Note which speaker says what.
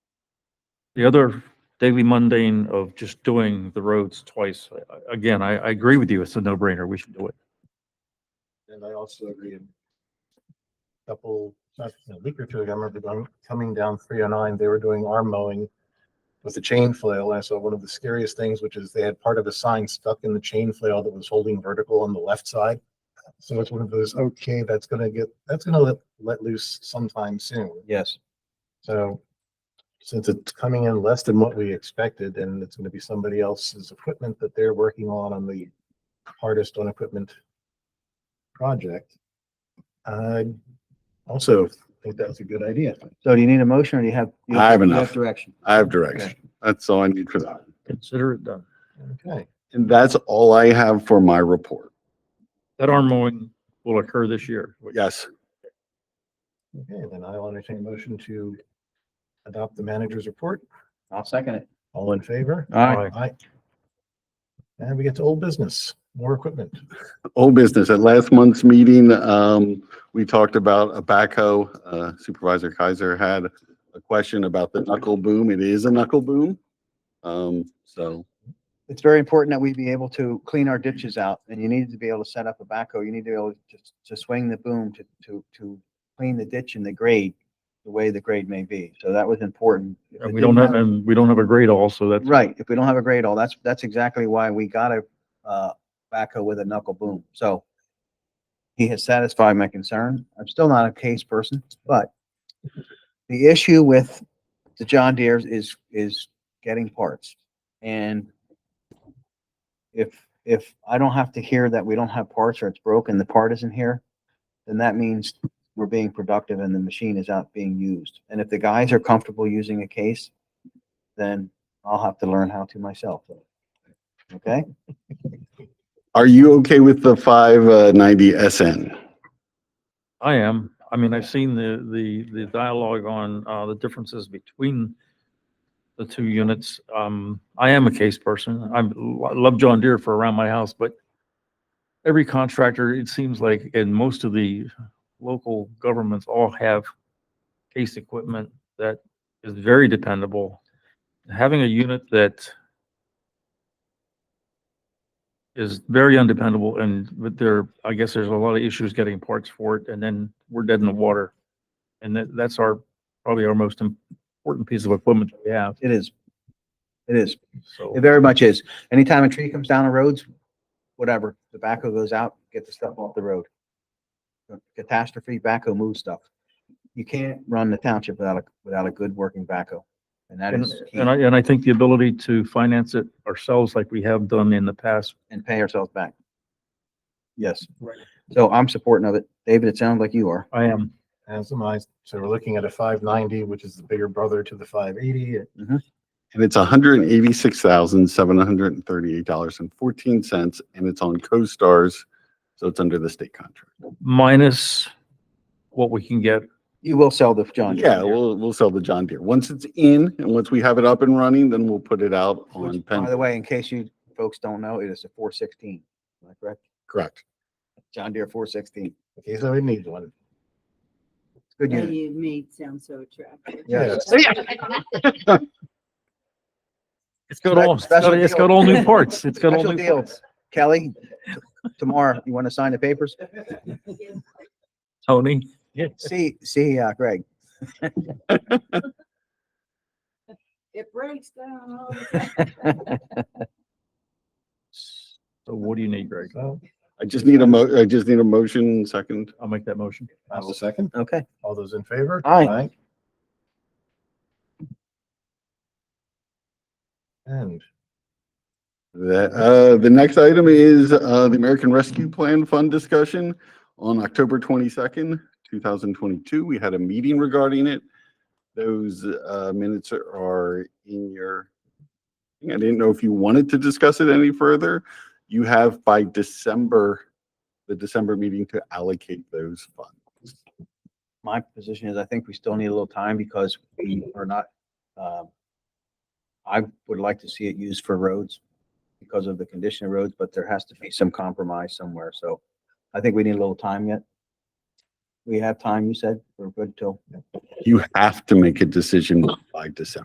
Speaker 1: the other daily mundane of just doing the roads twice, I- I- again, I, I agree with you. It's a no brainer. We should do it.
Speaker 2: And I also agree. in a Couple, not a week or two ago, I remember going, coming down three oh nine, they were doing arm mowing with a chain flail. And I saw one of the scariest things, which is they had part of a sign stuck in the chain flail that was holding vertical on the left side. So it's one of those, okay, that's gonna get, that's gonna let, let loose sometime soon.
Speaker 3: Yes.
Speaker 2: So since it's coming in less than what we expected and it's gonna be somebody else's equipment that they're working on on the hardest on equipment project. I also think that's a good idea.
Speaker 3: So do you need a motion or do you have? you
Speaker 4: I have
Speaker 3: you
Speaker 4: enough.
Speaker 3: Direction.
Speaker 4: I have direction. That's all I need for that.
Speaker 1: Consider it done.
Speaker 2: Okay,
Speaker 4: And that's all I have for my report.
Speaker 1: That arm mowing will occur this year.
Speaker 4: Yes,
Speaker 2: okay, then I'll entertain a motion to adopt the manager's report.
Speaker 3: I'll second it.
Speaker 2: All in favor?
Speaker 3: All right.
Speaker 2: Aye. And we get to old business, more equipment.
Speaker 4: old business. At last month's meeting, um, we talked about a backhoe. Uh, Supervisor Kaiser had a question about the knuckle boom. It is a knuckle boom. Um, so,
Speaker 3: It's very important that we be able to clean our ditches out and you need to be able to set up a backhoe. You need to be able to, to swing the boom to, to, to clean the ditch and the grade the way the grade may be. So that was important. If
Speaker 1: And
Speaker 3: it
Speaker 1: we don't
Speaker 3: didn't
Speaker 1: have, and we don't have a grade also. That's,
Speaker 3: Right, if we don't have a grade all, that's, that's exactly why we got a, uh, backhoe with a knuckle boom, so. He has satisfied my concern, I'm still not a case person, but. The issue with the John Deere's is, is getting parts, and. If, if I don't have to hear that we don't have parts or it's broken, the part isn't here, then that means we're being productive and the machine is out being used. And if the guys are comfortable using a case, then I'll have to learn how to myself. though. Okay,
Speaker 4: are you okay with the five uh, ninety SN?
Speaker 1: I am. I mean, I've seen the, the, the dialogue on, uh, the differences between the two units. Um, I am a case person. I'm, I love John Deere for around my house, but every contractor, it seems like, and most of the local governments all have case equipment that is very dependable. Having a unit that is very undependable and but there, I guess there's a lot of issues getting parts for it and then we're dead in the water. And that, that's our, probably our most important piece of equipment that we have,
Speaker 3: it is. It is.
Speaker 1: so.
Speaker 3: It very much is. Anytime a tree comes down the roads, whatever, the backhoe goes out, get the stuff off the road. Catastrophe, backhoe moves stuff. You can't run the township without a, without a good working backhoe. And that
Speaker 1: And
Speaker 3: is key.
Speaker 1: and I, and I think the ability to finance it ourselves like we have done in the past.
Speaker 3: and pay ourselves back. Yes.
Speaker 1: Right.
Speaker 3: So I'm supporting of it. David, it sounds like you are.
Speaker 1: I am,
Speaker 2: And some eyes, so we're looking at a five ninety, which is the bigger brother to the five eighty.
Speaker 4: And it's hundred and eighty-six thousand, seven hundred and thirty-eight dollars and fourteen cents, and it's on CoStarz, so it's under the state contract.
Speaker 1: minus what we can get.
Speaker 3: You will sell the John. Deere.
Speaker 4: Yeah, we'll, we'll sell the John Deere. Once it's in, and once we have it up and running, then we'll put it out on
Speaker 3: Which, by the
Speaker 4: pen.
Speaker 3: way, in case you folks don't know, it is a four sixteen, am I correct?
Speaker 4: Correct.
Speaker 3: John Deere four sixteen.
Speaker 2: Okay, so we need one.
Speaker 3: Good
Speaker 5: Yeah,
Speaker 3: unit.
Speaker 5: you made sound so attractive.
Speaker 2: Yeah.
Speaker 1: It's got all, it's got it's got all new parts. It's got all
Speaker 3: Special
Speaker 1: new
Speaker 3: deal.
Speaker 1: parts.
Speaker 3: Kelly, tomorrow, you want to sign the papers?
Speaker 1: Tony,
Speaker 3: See, see, uh, Greg.
Speaker 5: It breaks down. all the time.
Speaker 1: so what do you need, Greg?
Speaker 2: So
Speaker 4: I just need a mo, I just need a motion second.
Speaker 1: I'll make that motion.
Speaker 2: I will second.
Speaker 3: Okay.
Speaker 2: All those in favor?
Speaker 3: Aye.
Speaker 2: And
Speaker 4: The, uh, the next item is, uh, the American Rescue Plan Fund discussion. On October twenty-second, two thousand twenty-two, we had a meeting regarding it. Those, uh, minutes are- are in your, I didn't know if you wanted to discuss it any further. You have by December, the December meeting to allocate those funds.
Speaker 3: My position is I think we still need a little time because we are not, um, I would like to see it used for roads because of the condition of roads, but there has to be some compromise somewhere. So I think we need a little time yet. We have time, you said, we're good till
Speaker 4: You have to make a decision by December.